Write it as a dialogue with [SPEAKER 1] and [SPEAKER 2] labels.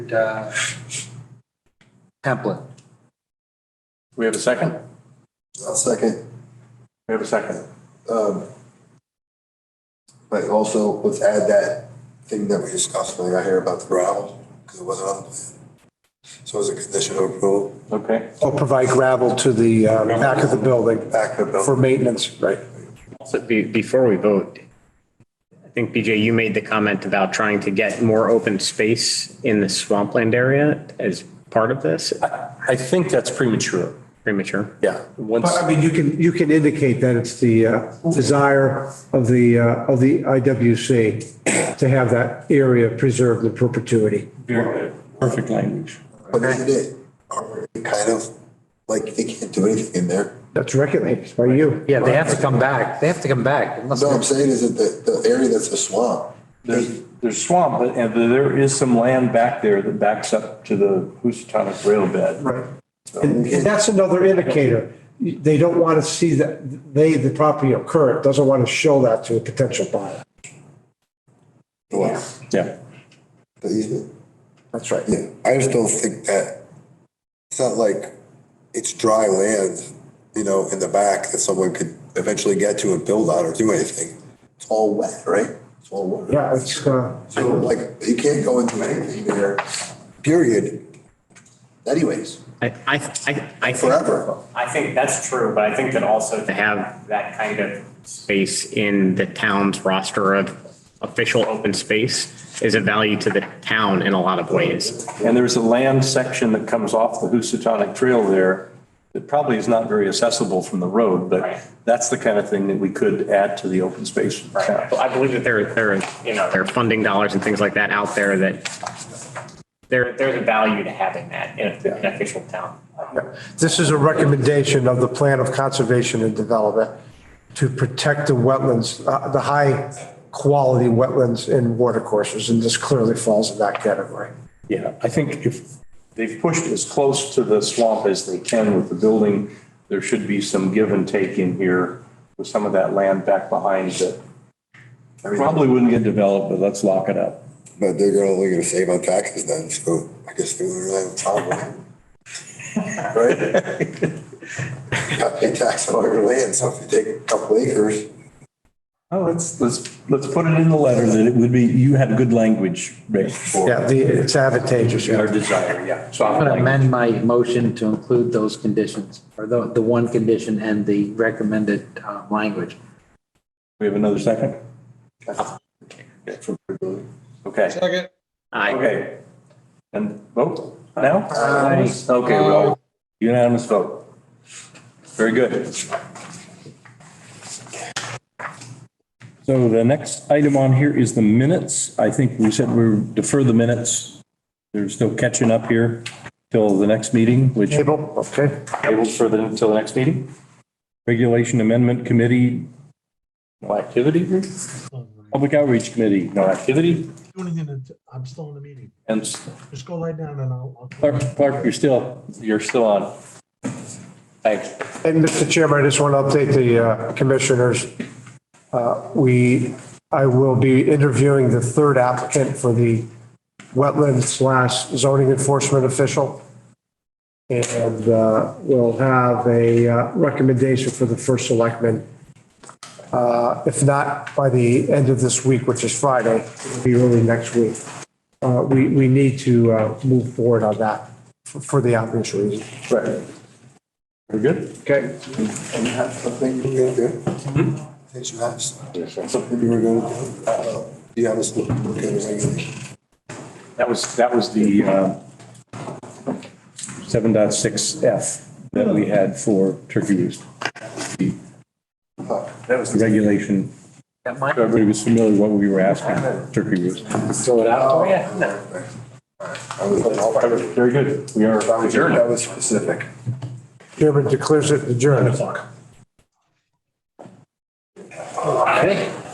[SPEAKER 1] updated uh, template.
[SPEAKER 2] We have a second?
[SPEAKER 3] I'll second.
[SPEAKER 2] We have a second.
[SPEAKER 3] Um, But also, let's add that thing that we discussed when I got here about the gravel, because it wasn't on the plan. So as a condition of approval,
[SPEAKER 2] Okay.
[SPEAKER 4] Or provide gravel to the uh, back of the building
[SPEAKER 3] back to the
[SPEAKER 4] for
[SPEAKER 3] building.
[SPEAKER 4] maintenance, right?
[SPEAKER 5] So be, before we vote, I think BJ, you made the comment about trying to get more open space in the swampland area as part of this,
[SPEAKER 2] I think that's premature.
[SPEAKER 5] premature.
[SPEAKER 2] Yeah. Once,
[SPEAKER 4] But I mean, you can, you can indicate that it's the uh, desire of the, uh, of the IWC to have that area preserved in perpetuity.
[SPEAKER 6] Perfect language.
[SPEAKER 3] But isn't it already kind of like they can't do anything in there?
[SPEAKER 4] That's regulated by you.
[SPEAKER 1] Yeah, they have to come back. They have to come back. It must-
[SPEAKER 3] No, I'm saying is that the, the area that's a swamp,
[SPEAKER 6] There's, there's swamp, but- and there is some land back there that backs up to the Housatonic rail bed. Right.
[SPEAKER 4] And that's another indicator. They don't want to see that, they, the property occur, doesn't want to show that to a potential buyer.
[SPEAKER 3] well,
[SPEAKER 6] Yeah.
[SPEAKER 3] the easement.
[SPEAKER 4] That's right.
[SPEAKER 3] Yeah, I just don't think that, it's not like it's dry land, you know, in the back that someone could eventually get to and build on or do anything. It's all wet, right? It's all water.
[SPEAKER 4] Yeah, it's, uh,
[SPEAKER 3] So like, you can't go into anything there, period. Anyways,
[SPEAKER 5] I, I, I- I. think-
[SPEAKER 3] Forever.
[SPEAKER 5] I think that's true, but I think that also to have that kind of space in the town's roster of official open space is a value to the town in a lot of ways.
[SPEAKER 6] And there's a land section that comes off the Housatonic Trail there that probably is not very accessible from the road,
[SPEAKER 5] Right.
[SPEAKER 6] but that's the kind of thing that we could add to the open space.
[SPEAKER 5] But I believe that there, there, are, you know, there are funding dollars and things like that out there that there, there's a value to having that in a- in an official town.
[SPEAKER 4] This is a recommendation of the Plan of Conservation and Development to protect the wetlands, uh, the high-quality wetlands and watercourses, and this clearly falls in that category.
[SPEAKER 6] Yeah, I think if they've pushed as close to the swamp as they can with the building, there should be some give and take in here with some of that land back behind that probably wouldn't get developed, but let's lock it up.
[SPEAKER 3] but they're gonna, only gonna save on taxes then, so I guess they wouldn't really have a problem. Right? You gotta pay tax on all your land, so if you take a couple acres,
[SPEAKER 6] Oh, let's, let's, let's put it in the letter that it would be, you had good language, Rick,
[SPEAKER 4] Yeah,
[SPEAKER 6] for
[SPEAKER 4] the, it's advantageous,
[SPEAKER 6] our
[SPEAKER 4] yeah.
[SPEAKER 6] desire, yeah. So
[SPEAKER 1] I'm
[SPEAKER 6] I'm
[SPEAKER 1] going to
[SPEAKER 6] like,
[SPEAKER 1] amend my motion to include those conditions, or the, the one condition and the recommended uh, language.
[SPEAKER 6] we have another second? Okay,
[SPEAKER 7] Second.
[SPEAKER 5] I,
[SPEAKER 6] okay. And vote now? Okay, well, unanimous vote. Very good.
[SPEAKER 8] So the next item on here is the minutes. I think we said we would defer the minutes. There's no catching up here till the next meeting, which
[SPEAKER 4] Table, okay.
[SPEAKER 6] Tabled for the, until the next meeting?
[SPEAKER 8] Regulation Amendment Committee,
[SPEAKER 6] No activity?
[SPEAKER 8] Public Outreach Committee,
[SPEAKER 6] No activity?
[SPEAKER 7] Do anything, until- I'm still in the meeting.
[SPEAKER 6] And s-
[SPEAKER 7] Just go lie down and I'll. I'll-
[SPEAKER 8] Clark, Clark, you're still,
[SPEAKER 6] you're still on. Thanks.
[SPEAKER 4] And Mr. Chairman, I just want to update the uh, commissioners. Uh, We, I will be interviewing the third applicant for the wetland slash zoning enforcement official. And uh, we'll have a uh, recommendation for the first selectman. Uh, If not by the end of this week, which is Friday, it'll be early next week. Uh, We, we need to uh, move forward on that for- for the obvious reason.
[SPEAKER 6] Right. We're good?
[SPEAKER 4] Okay.
[SPEAKER 3] and you have something you were gonna do? Did Mm-hmm. you have something you were gonna do? Uh, Do you have a look at the regulation?
[SPEAKER 8] that was, that was the uh, 7.6F that we had for turkey roost. That was the regulation.
[SPEAKER 1] That might
[SPEAKER 8] Everybody was familiar with what we were asking, turkey roost.
[SPEAKER 1] throw it out.
[SPEAKER 3] I was-
[SPEAKER 6] Very good. We are adjourned.
[SPEAKER 3] That was specific.
[SPEAKER 4] Chairman declares it adjourned.
[SPEAKER 1] Okay.